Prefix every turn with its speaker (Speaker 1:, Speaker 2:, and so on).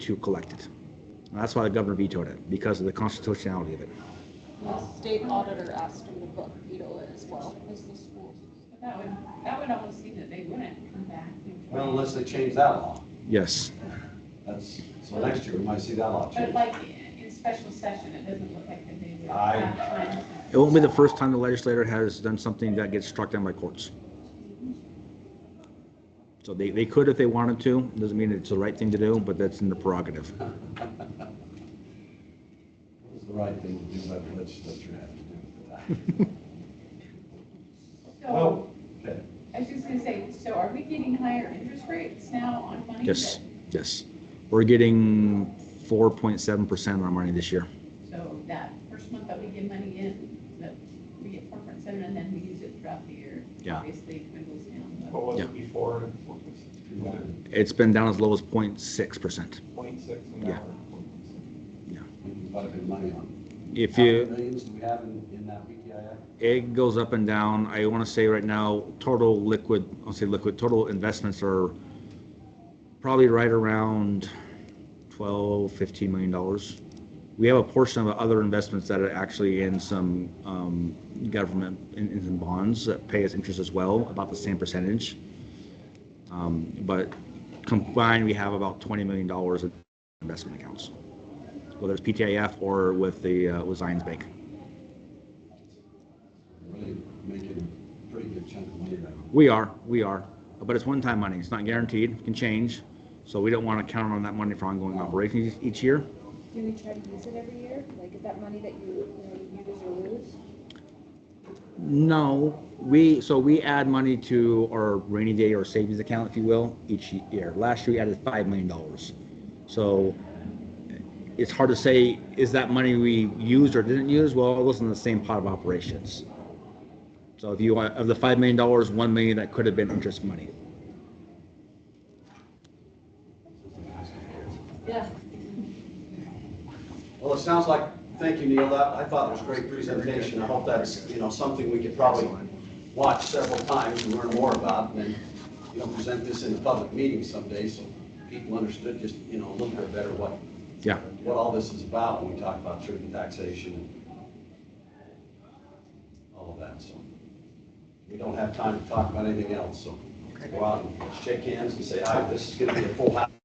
Speaker 1: to collect it. And that's why the governor vetoed it, because of the constitutionality of it.
Speaker 2: The state auditor asked him to book veto it as well as the schools.
Speaker 3: That would, that would almost seem that they wouldn't come back. and-
Speaker 4: Well, unless they change that law.
Speaker 1: Yes,
Speaker 4: That's, so next year we might see that law
Speaker 3: But
Speaker 4: change.
Speaker 3: like in special session, it doesn't look like that they would.
Speaker 4: I-
Speaker 3: have time.
Speaker 1: it won't be the first time the legislator has done something that gets struck down by courts. So they, they could if they wanted to, doesn't mean it's the right thing to do, but that's in the prerogative.
Speaker 4: It's the right thing to do, but the legislature has to do it.
Speaker 3: So,
Speaker 4: okay.
Speaker 3: I was just gonna say, so are we getting higher interest rates now on money?
Speaker 1: Yes, yes. We're getting 4.7% on our money this year.
Speaker 3: that- So that first month that we get money in, that we get four point seven and then we use it throughout the year.
Speaker 1: Yeah.
Speaker 3: Obviously, it dwindles down. but-
Speaker 5: What was
Speaker 1: Yeah.
Speaker 5: it before?
Speaker 1: It's been down as low as 0.6%.
Speaker 5: Point six an
Speaker 1: Yeah.
Speaker 5: hour.
Speaker 4: We can put a bit of money on.
Speaker 1: If
Speaker 4: How many
Speaker 1: you,
Speaker 4: Millions do we have in, in that VTIF?
Speaker 1: it goes up and down. I want to say right now, total liquid, I'll say liquid, total investments are probably right around 12, 15 million dollars. We have a portion of other investments that are actually in some um, government, in, in some bonds that pay us interest as well, about the same percentage. Um, But combined, we have about 20 million dollars in investment accounts, whether it's PTIF or with the, uh, with Zions Bank.
Speaker 4: Really making a pretty good chunk of money right now.
Speaker 1: We are, we are, but it's one-time money, it's not guaranteed, it can change, so we don't want to count on that money for ongoing operations each year.
Speaker 6: Do we try to use it every year? Like, is that money that you, you know, you use or lose?
Speaker 1: No, we, so we add money to our rainy day or savings account, if you will, each year. Last year, we added $5 million. So it's hard to say, is that money we used or didn't use? Well, it wasn't the same pot of operations. So if you, want- of the $5 million, 1 million that could have been interest money.
Speaker 3: Yeah.
Speaker 4: Well, it sounds like, thank you, Neil, that, I thought it was a great presentation. I hope that's, you know, something we could probably watch several times and learn more about, and then, you know, present this in a public meeting someday, so people understood just, you know, a little bit better what,
Speaker 1: Yeah,
Speaker 4: what all this is about when we talk about truth and taxation and all of that, so. We don't have time to talk about anything else, so go out and shake hands and say, hi, this is gonna be a full house